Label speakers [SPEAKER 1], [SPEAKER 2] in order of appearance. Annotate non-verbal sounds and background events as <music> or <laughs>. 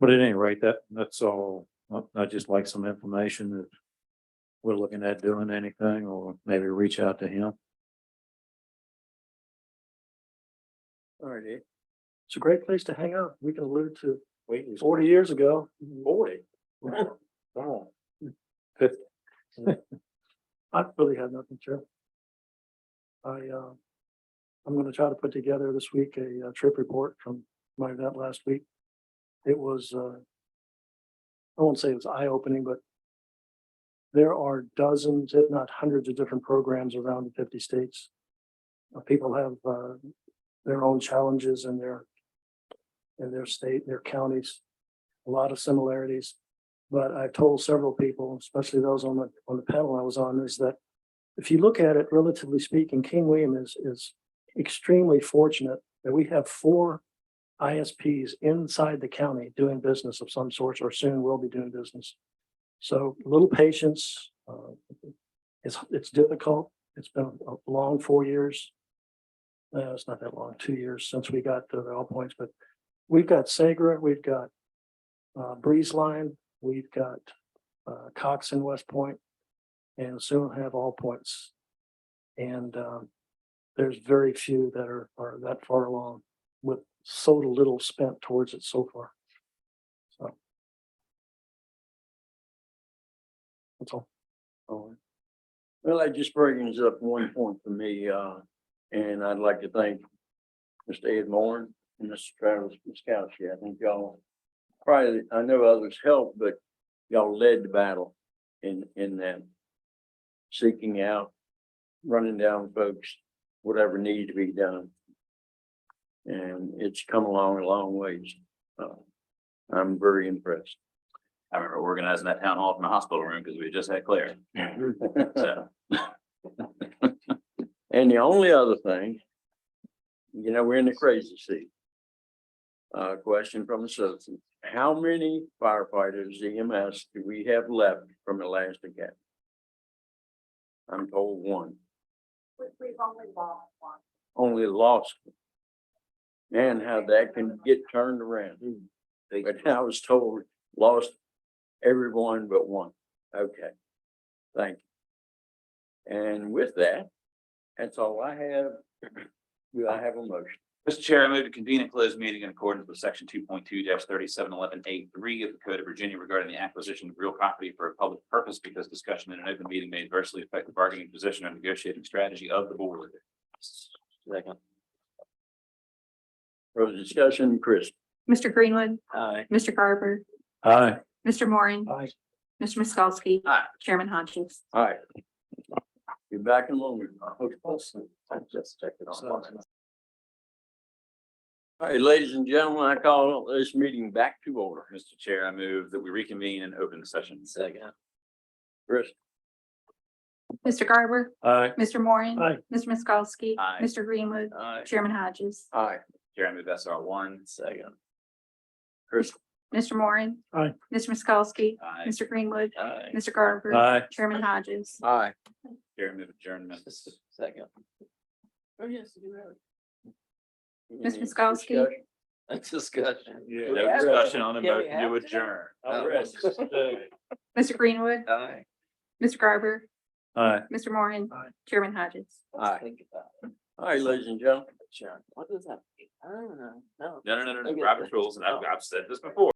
[SPEAKER 1] But at any rate, that, that's all, I, I just like some information that we're looking at doing anything, or maybe reach out to him.
[SPEAKER 2] All right, Dave. It's a great place to hang out. We can allude to forty years ago. <laughs> Forty. <laughs> I really have nothing, Chair. I, uh, I'm gonna try to put together this week a uh, trip report from my event last week. It was, uh, I won't say it was eye-opening, but there are dozens, if not hundreds of different programs around the fifty states. Uh, People have, uh, their own challenges in their in their state, and their counties, a lot of similarities. But I've told several people, especially those on the on the panel I was on, is that if you look at it relatively speaking, King William is is extremely fortunate that we have four ISPs inside the county doing business of some sort or soon will be doing business. So a little patience. uh, It's it's difficult. It's been a long four years uh, it's not that long, two years since we got to the all points, but we've got Sagra, we've got uh, Breeze Line, we've got uh, Cox and West Point, and soon have all points. And um, there's very few that are, are that far along with so little spent towards it so far. So. That's all.
[SPEAKER 3] Oh. Well, that just brings up one point for me, uh, and I'd like to thank Mr. Ed Moore and Mr. Travis Miskowski. I think y'all probably, I know others helped, but y'all led the battle in, in that seeking out, running down folks, whatever needed to be done. And it's come along a long ways. Uh, I'm very impressed. <laughs>
[SPEAKER 4] I remember organizing that town hall from the hospital room because we just had Claire. So
[SPEAKER 3] And the only other thing, you know, we're in the crazy seat. Uh, question from the citizen, how many firefighters EMS do we have left from the last academy? I'm told one,
[SPEAKER 5] We, we've only lost one.
[SPEAKER 3] only lost. one. And how that can get turned around. But <laughs> I was told lost everyone but one. Okay, thank you. And with that, that's all I have. Do I have a motion?
[SPEAKER 4] Mr. Chair, I move to convene a closed meeting in accordance with section two point two thirty-seven eleven A three of the Code of Virginia regarding the acquisition of real property for a public purpose because discussion in an open meeting may adversely affect the bargaining position or negotiating strategy of the board. Second.
[SPEAKER 3] Further discussion, Chris?
[SPEAKER 6] Mr. Greenwood,
[SPEAKER 4] Aye.
[SPEAKER 6] Mr. Garber,
[SPEAKER 1] Aye.
[SPEAKER 6] Mr. Morin,
[SPEAKER 2] Bye.
[SPEAKER 6] Mr. Miskowski.
[SPEAKER 4] Aye.
[SPEAKER 6] Chairman Hodges.
[SPEAKER 3] All right. You're back in Logan. All
[SPEAKER 4] I just checked it
[SPEAKER 2] So-
[SPEAKER 3] right, ladies and gentlemen, I call this meeting back to order.
[SPEAKER 4] Mr. Chair, I move that we reconvene in open session. Second.
[SPEAKER 3] Chris?
[SPEAKER 6] Mr. Garber,
[SPEAKER 1] Aye.
[SPEAKER 6] Mr. Morin.
[SPEAKER 2] Aye.
[SPEAKER 6] Mr. Miskowski.
[SPEAKER 4] Aye.
[SPEAKER 6] Mr. Greenwood,
[SPEAKER 3] Aye.
[SPEAKER 6] Chairman Hodges.
[SPEAKER 3] Aye.
[SPEAKER 4] Chair, I move SR one. Second.
[SPEAKER 6] Mr. Morin.
[SPEAKER 2] Aye.
[SPEAKER 6] Mr. Miskowski.
[SPEAKER 4] Aye.
[SPEAKER 6] Mr. Greenwood,
[SPEAKER 4] Aye.
[SPEAKER 6] Mr. Garber.
[SPEAKER 1] Aye.
[SPEAKER 6] Chairman Hodges.
[SPEAKER 3] Aye.
[SPEAKER 4] Chair, I move adjournment. Second.
[SPEAKER 3] Oh, yes, you have.
[SPEAKER 6] Ms. Miskowski?
[SPEAKER 3] Discussion. <laughs>
[SPEAKER 4] No discussion on a motion to Oh, adjourn. <laughs>
[SPEAKER 6] Mr. Greenwood,
[SPEAKER 3] Aye.
[SPEAKER 6] Mr. Garber,
[SPEAKER 1] Aye.
[SPEAKER 6] Mr. Morin.
[SPEAKER 2] Aye.
[SPEAKER 6] Chairman Hodges.
[SPEAKER 3] Aye. All right, ladies and gentlemen.
[SPEAKER 4] Oh. No, no, no, no, no. Robert's rules, and I've, I've said this before.